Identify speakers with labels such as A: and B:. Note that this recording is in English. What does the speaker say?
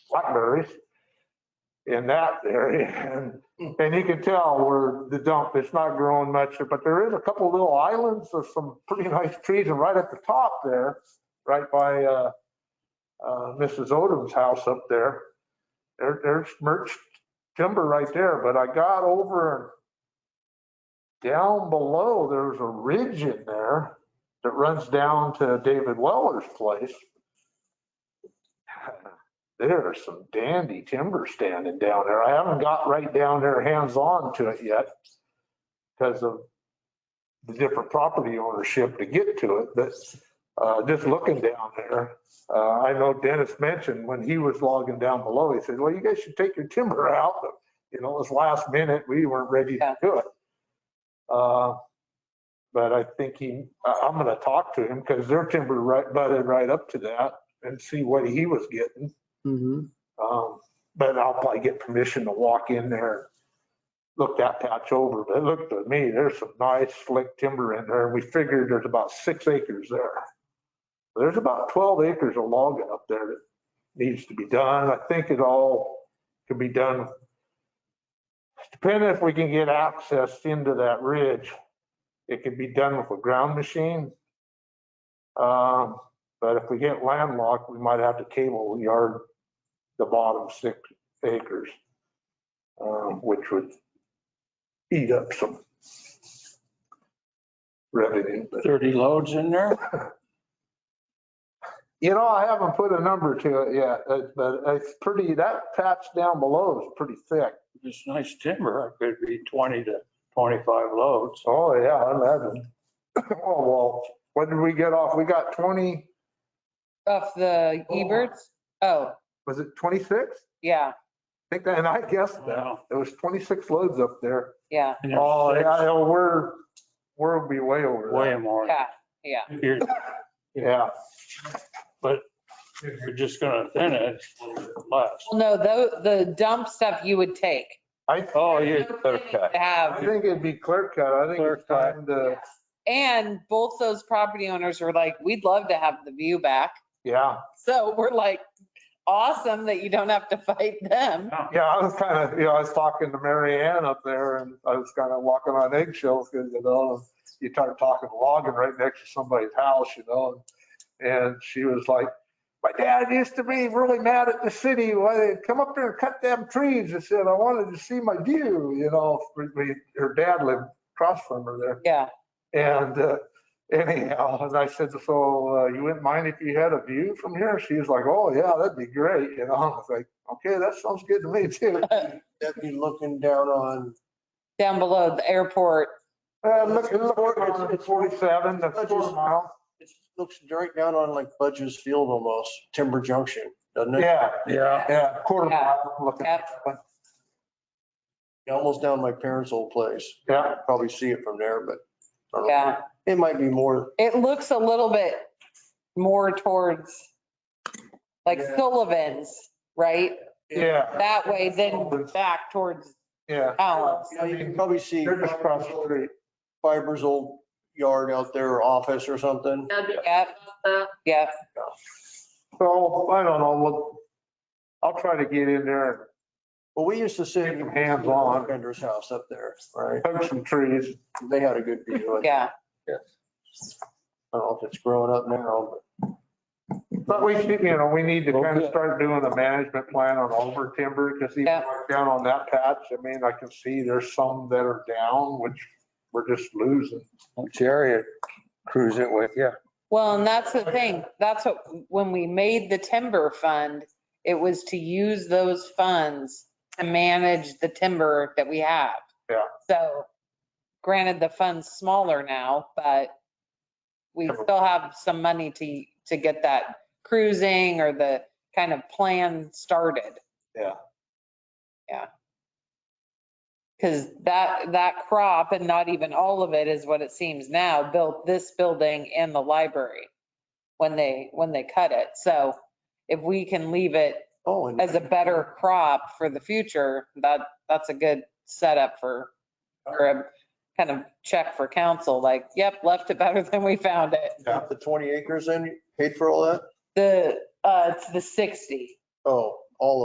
A: partners in that area. And, and you can tell where the dump, it's not growing much, but there is a couple little islands of some pretty nice trees. And right at the top there, right by, uh, uh, Mrs. Odom's house up there, there, there's merged timber right there, but I got over and down below, there's a ridge in there that runs down to David Weller's place. There are some dandy timber standing down there. I haven't got right down there hands-on to it yet because of the different property ownership to get to it, but uh, just looking down there, uh, I know Dennis mentioned when he was logging down below, he said, well, you guys should take your timber out. But, You know, it was last minute. We weren't ready to do it. Uh, But I think he, I- I'm going to talk to him because their timber right butted right up to that and see what he was getting.
B: Mhm.
A: Um, But I'll probably get permission to walk in there, and look that patch over. But it looked to me, there's some nice slick timber in there. We figured there's about six acres there. There's about 12 acres of logging up there that needs to be done. I think it all could be done. Depending if we can get access into that ridge, it could be done with a ground machine. Um, But if we get landlocked, we might have to cable yard the bottom six acres, um, which would eat up some revenue. But
C: 30 loads in there?
A: You know, I haven't put a number to it yet, uh, but it's pretty, that patch down below is pretty thick.
C: It's nice timber. It could be 20 to 25 loads.
A: Oh, yeah, I imagine. Oh, well, what did we get off? We got 20,
D: Of the Eberts? Oh,
A: was it 26? I
D: yeah,
A: think that, and I guessed that.
C: Wow.
A: It was 26 loads up there.
D: yeah,
C: And there's
A: Oh,
C: six,
A: yeah, we're, we'll be way over
C: Way
A: that.
C: more.
D: yeah.
C: You're,
A: Yeah,
C: you're just gonna thin it it's a little bit less.
D: Well, no, the, the dump stuff you would take.
A: I,
C: Oh, you,
D: To
A: I
D: Have,
A: think it'd be clear cut. I think it's
C: Clear cut.
A: time to,
D: and both those property owners were like, we'd love to have the view back.
A: yeah.
D: So we're like, awesome that you don't have to fight them.
A: Yeah, I was kind of, you know, I was talking to Mary Ann up there and I was kind of walking on eggshells because, you know, you start talking logging right next to somebody's house, you know? And she was like, my dad used to be really mad at the city. Why they come up there and cut them trees? I said, I wanted to see my view, you know, we- we- her dad lived across from her there.
D: Yeah,
A: And uh, anyhow, and I said, so uh, you wouldn't mind if you had a view from here? She was like, oh yeah, that'd be great. You know, I was like, okay, that sounds good to me too.
B: That'd be looking down on,
D: down below the airport.
A: Uh, look, look, it's- it's 47, that's four mile.
B: it looks right down on like Budge's Field almost, Timber Junction, doesn't it?
A: Yeah,
C: yeah,
A: yeah, quarter mile. looking.
D: Yep.
B: Almost down my parents' old place.
A: Yeah,
B: Probably see it from there, but I don't know.
D: Yeah,
B: it might be more.
D: it looks a little bit more towards like
A: Yeah.
D: Sullivan's, right?
A: yeah,
D: That way, then back towards
A: yeah.
D: Allen's.
B: You know, you can probably see
A: They're just across the street.
B: Fiber's old yard out there, or office or something.
D: Yep, yep.
A: So I don't know, look, I'll try to get in there
B: Well, we used to sit.
A: Hands on.
B: Bender's house up there, right?
A: and hug some trees.
B: They had a good view. I
D: Yeah,
B: don't know if it's growing up now, but.
A: But we should, you know, we need to kind of
C: Okay.
A: start doing a management plan on over timber because even
D: Yeah.
A: like down on that patch, I mean, I can see there's some that are down, which we're just losing.
C: Jerry cruise it with, yeah.
D: well, and that's the thing, that's what, when we made the timber fund, it was to use those funds to manage the timber that we have.
A: Yeah.
D: So granted, the fund's smaller now, but we still have some money to, to get that cruising or the kind of plan started.
A: Yeah.
D: Yeah. Because that, that crop and not even all of it is what it seems now, built this building and the library when they, when they cut it. So if we can leave it
B: Oh, and
D: as a better crop for the future, that, that's a good setup for, or a kind of check for council, like, yep, left it better than we found it.
B: the 20 acres in, you paid for all that?
D: The, uh, it's the 60.
B: Oh,